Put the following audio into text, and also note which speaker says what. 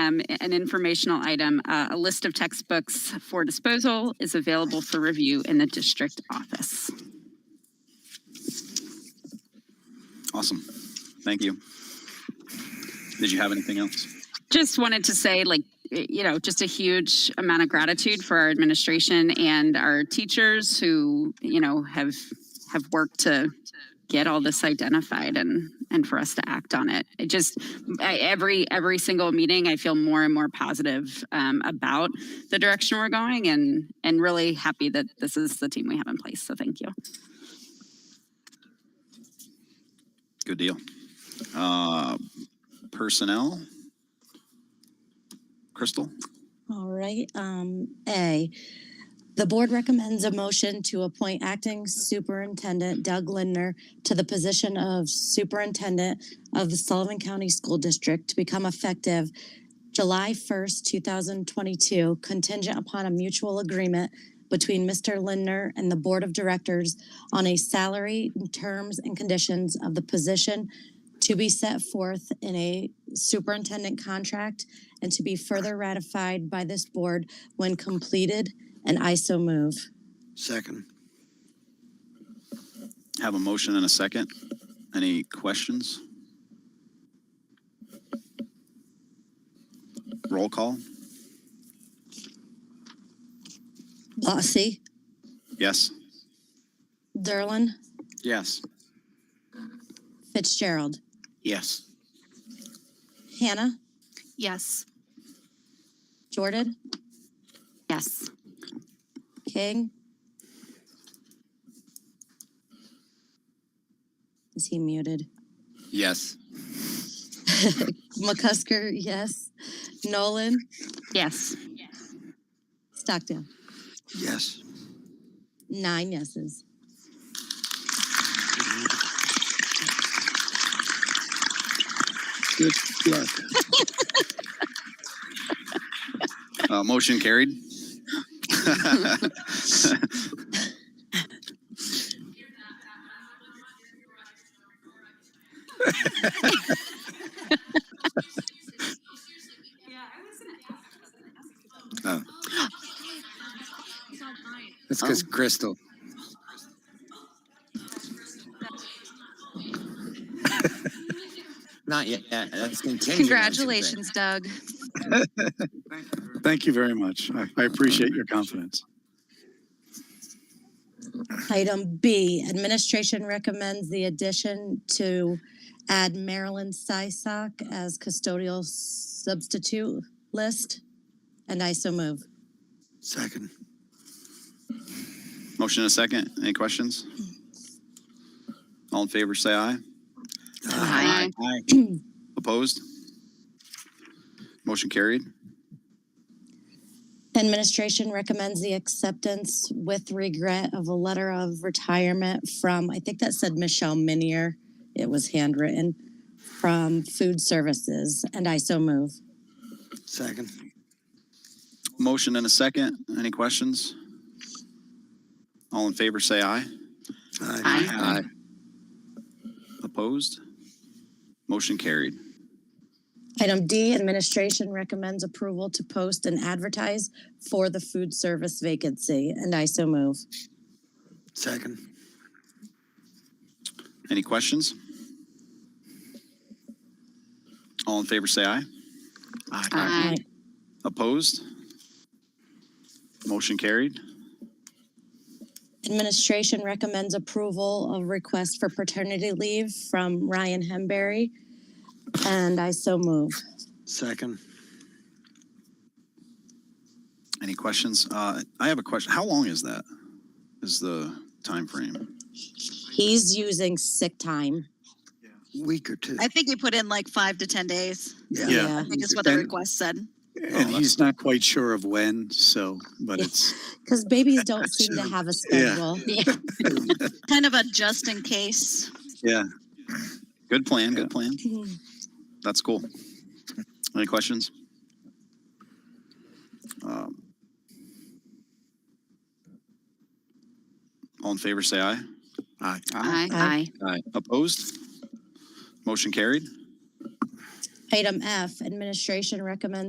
Speaker 1: um, an informational item. Uh, a list of textbooks for disposal is available for review in the district office.
Speaker 2: Awesome. Thank you. Did you have anything else?
Speaker 1: Just wanted to say, like, y- you know, just a huge amount of gratitude for our administration and our teachers who, you know, have have worked to get all this identified and and for us to act on it. It just I, every every single meeting, I feel more and more positive um, about the direction we're going, and and really happy that this is the team we have in place. So thank you.
Speaker 2: Good deal. Uh, personnel? Crystal?
Speaker 3: All right, um, A, the board recommends a motion to appoint acting superintendent Doug Lindner to the position of superintendent of the Sullivan County School District to become effective July first, two thousand twenty-two, contingent upon a mutual agreement between Mr. Lindner and the Board of Directors on a salary, terms, and conditions of the position to be set forth in a superintendent contract and to be further ratified by this board when completed, and I so move.
Speaker 4: Second.
Speaker 2: Have a motion and a second. Any questions? Roll call?
Speaker 3: Lossy,
Speaker 2: Yes?
Speaker 3: Derlin,
Speaker 2: Yes.
Speaker 3: Fitzgerald,
Speaker 2: Yes.
Speaker 3: Hannah,
Speaker 1: Yes.
Speaker 3: Jordan,
Speaker 1: Yes.
Speaker 3: King. Is he muted?
Speaker 2: Yes.
Speaker 3: McCusker, yes. Nolan,
Speaker 1: Yes.
Speaker 3: Stockdale,
Speaker 4: Yes.
Speaker 3: nine yeses.
Speaker 4: Good luck.
Speaker 2: Uh, motion carried.
Speaker 5: That's
Speaker 4: Oh.
Speaker 5: because Crystal. Not yet.
Speaker 4: Uh,
Speaker 5: Yeah, That's continuing.
Speaker 1: Congratulations, Doug.
Speaker 6: Thank you very much. I- I appreciate your confidence.
Speaker 3: Item B, administration recommends the addition to add Marilyn Sysak as custodial substitute list, and I so move.
Speaker 4: Second.
Speaker 2: Motion and a second. Any questions? All in favor, say aye.
Speaker 1: Aye.
Speaker 2: Opposed? Motion carried.
Speaker 3: Administration recommends the acceptance with regret of a letter of retirement from, I think that said Michelle Minier. It was handwritten from Food Services, and I so move.
Speaker 4: Second.
Speaker 2: Motion and a second. Any questions? All in favor, say aye.
Speaker 4: Aye.
Speaker 5: Aye.
Speaker 2: Opposed? Motion carried.
Speaker 3: Item D, administration recommends approval to post and advertise for the food service vacancy, and I so move.
Speaker 4: Second.
Speaker 2: Any questions? All in favor, say aye.
Speaker 1: Aye.
Speaker 2: Opposed? Motion carried.
Speaker 3: Administration recommends approval of request for paternity leave from Ryan Hemberry, and I so move.
Speaker 4: Second.
Speaker 2: Any questions? Uh, I have a question. How long is that? Is the time frame?
Speaker 3: He's using sick time.
Speaker 4: Week or two.
Speaker 7: I think you put in like five to 10 days.
Speaker 2: Yeah.
Speaker 7: I think is what the
Speaker 6: And-
Speaker 7: request said.
Speaker 4: Oh,
Speaker 6: And he's not quite sure of when, so, but it's,
Speaker 3: Because babies don't seem to have a schedule.
Speaker 7: Kind of a just in case.
Speaker 6: yeah.
Speaker 2: Good plan, good plan. That's cool. Any questions? Um, All in favor, say aye.
Speaker 4: Aye.
Speaker 1: Aye.
Speaker 3: Aye.
Speaker 2: Opposed? Motion carried.
Speaker 3: Item F, administration recommends